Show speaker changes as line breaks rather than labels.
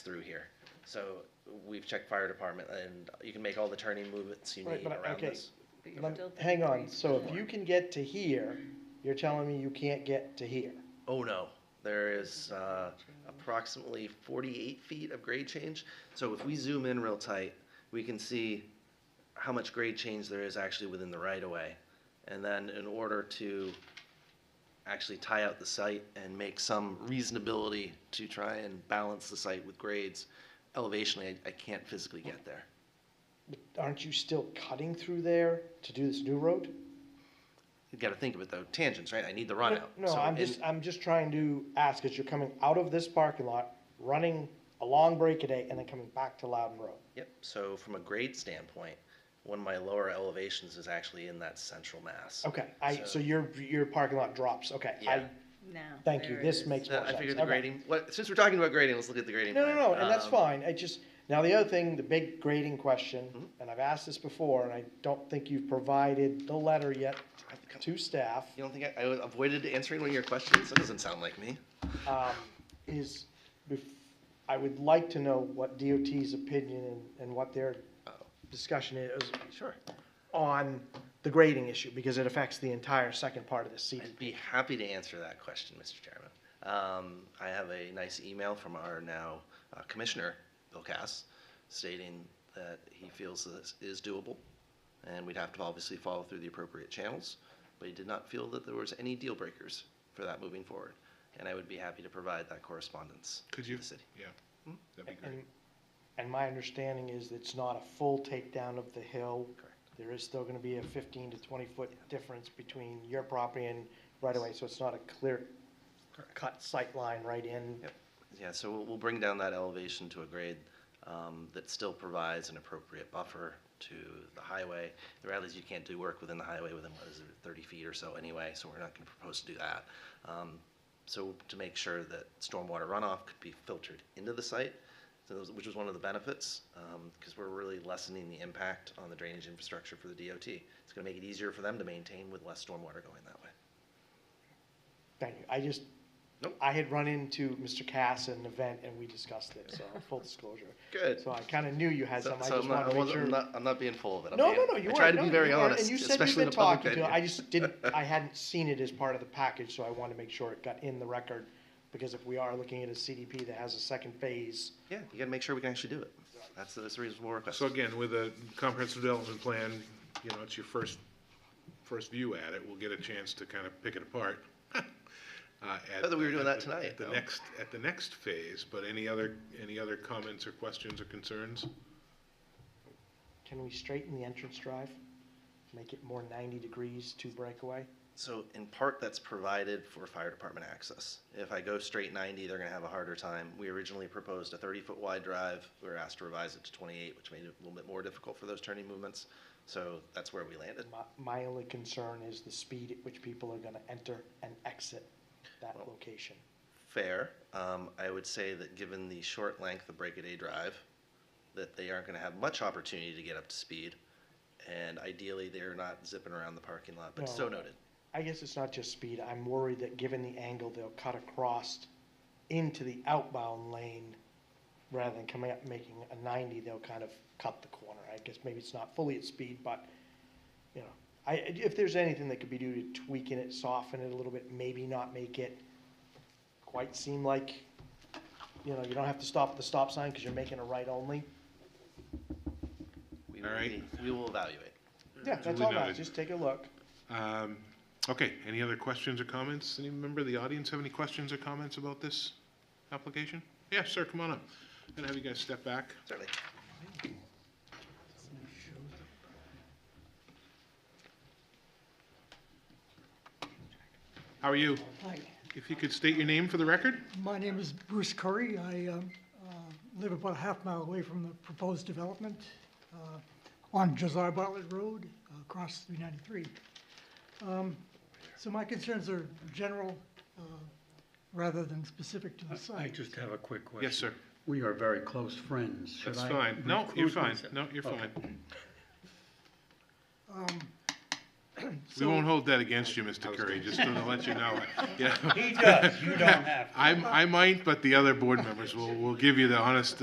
through here. So we've checked fire department and you can make all the turning movements you
Right,
need
but I-
around
okay.
this.
But you're
Lem-
still three
Hang on,
degrees
so if
before.
you can get to here, you're telling me you can't get to here?
Oh, no, there is, uh, approximately forty-eight feet of grade change. So if we zoom in real tight, we can see how much grade change there is actually within the right-of-way. And then in order to actually tie out the site and make some reasonability to try and balance the site with grades, elevationally, I, I can't physically get there.
But Aren't you still cutting through there to do this new road?
You gotta think of it though, tangents, right? I need the run out.
No,
So
I'm
in-
just, I'm just trying to ask, because you're coming out of this parking lot, running along Breakaday, and then coming back to Loudon Road.
Yep, so from a grade standpoint, one of my lower elevations is actually in that central mass.
Okay, I, so
So-
your, your parking lot drops, okay. I-
Yeah.
Now.
Thank you,
there it
this
is.
makes more
Uh,
sense.
I figured the
okay.
grading, what, since we're talking about grading, let's look at the grading
No,
plan.
no, no, and that's
Um,
fine, I just, now the other thing, the big grading question,
Mm-hmm.
and I've asked this before, and I don't think you've provided the letter yet to staff.
You don't think I, I avoided answering one of your questions? That doesn't sound like me.
um, is, bef- I would like to know what DOT's opinion and, and what their
Uh-oh.
discussion is
Sure.
on the grading issue, because it affects the entire second part of the
I'd
CDP.
be happy to answer that question, Mr. Chairman. Um, I have a nice email from our now uh, Commissioner, Bill Cass, stating that he feels this is doable, and we'd have to obviously follow through the appropriate channels, but he did not feel that there was any deal breakers for that moving forward, and I would be happy to provide that correspondence to
Could you?
the city.
Yeah, that'd be
And,
great.
and my understanding is it's not a full takedown of the hill.
Correct.
There is still gonna be a fifteen to twenty foot difference between your property and right away, so it's not a clear cut sight line right in.
Yep, yeah, so we'll, we'll bring down that elevation to a grade, um, that still provides an appropriate buffer to the highway. The reality is you can't do work within the highway within, what is it, thirty feet or so anyway, so we're not gonna propose to do that. Um, so to make sure that stormwater runoff could be filtered into the site, so those, which was one of the benefits, um, cause we're really lessening the impact on the drainage infrastructure for the DOT. It's gonna make it easier for them to maintain with less stormwater going that way.
Thank you. I just,
Nope.
I had run into Mr. Cass at an event and we discussed it, so full disclosure.
Good.
So I kind of knew you had
So,
some, I
so
just
I'm, not,
wanted
I
to make
wasn't,
sure.
I'm, not, I'm not being full of it. I'm
No, no,
being,
no, you
I
weren't.
try to
No,
be
you
very
weren't,
honest,
And you said you've
especially in the
been
public
talking to,
venue.
I just didn't, I hadn't seen it as part of the package, so I wanted to make sure it got in the record. Because if we are looking at a CDP that has a second phase,
Yeah, you got to make sure we can actually do it. That's, that's the reason we're requesting.
So again, with a comprehensive development plan, you know, it's your first, first view at it, we'll get a chance to kind of pick it apart. uh, at
Not that we were
the-
doing that
at the-
tonight,
At the
though.
next, at the next phase, but any other, any other comments or questions or concerns?
can we straighten the entrance drive? Make it more ninety degrees to breakaway?
So in part, that's provided for fire department access. If I go straight 90, they're going to have a harder time. We originally proposed a 30-foot wide drive. We were asked to revise it to 28, which made it a little bit more difficult for those turning movements. So that's where we landed.
My, my only concern is the speed at which people are gonna enter and exit that location.
Fair. Um, I would say that given the short length of Break a Day Drive, that they aren't going to have much opportunity to get up to speed. And ideally, they're not zipping around the parking lot, but so
No.
noted.
I guess it's not just speed, I'm worried that given the angle, they'll cut across into the outbound lane rather than coming up making a ninety, they'll kind of cut the corner. I guess maybe it's not fully at speed, but, you know, I, if there's anything that could be due to tweaking it, soften it a little bit, maybe not make it quite seem like, you know, you don't have to stop at the stop sign because you're making a right only.
We
All
will
right.
be- We will evaluate.
Yeah, that's
Duly
all right,
noted.
just take a look.
Um, okay, any other questions or comments? Any member of the audience have any questions or comments about this application? Yeah, sir, come on up. I'm gonna have you guys step back.
Certainly.
How are you?
Hi,
If you could state your name for the record?
my name is Bruce Curry. I um, uh, live about a half mile away from the proposed development uh, on Josiah Bartlett Road, uh, across 393. Um, So my concerns are general uh, rather than specific to the
I
site.
just have a quick question.
Yes, sir.
We are very close friends. Should
That's
I
fine. No, you're
recruit
fine.
myself?
No, you're
Okay.
fine. We won't hold that against you, Mr. Curry, just to let you know. Yeah.
He does, you don't have to.
I'm, I might, but the other board members will, will give you the honest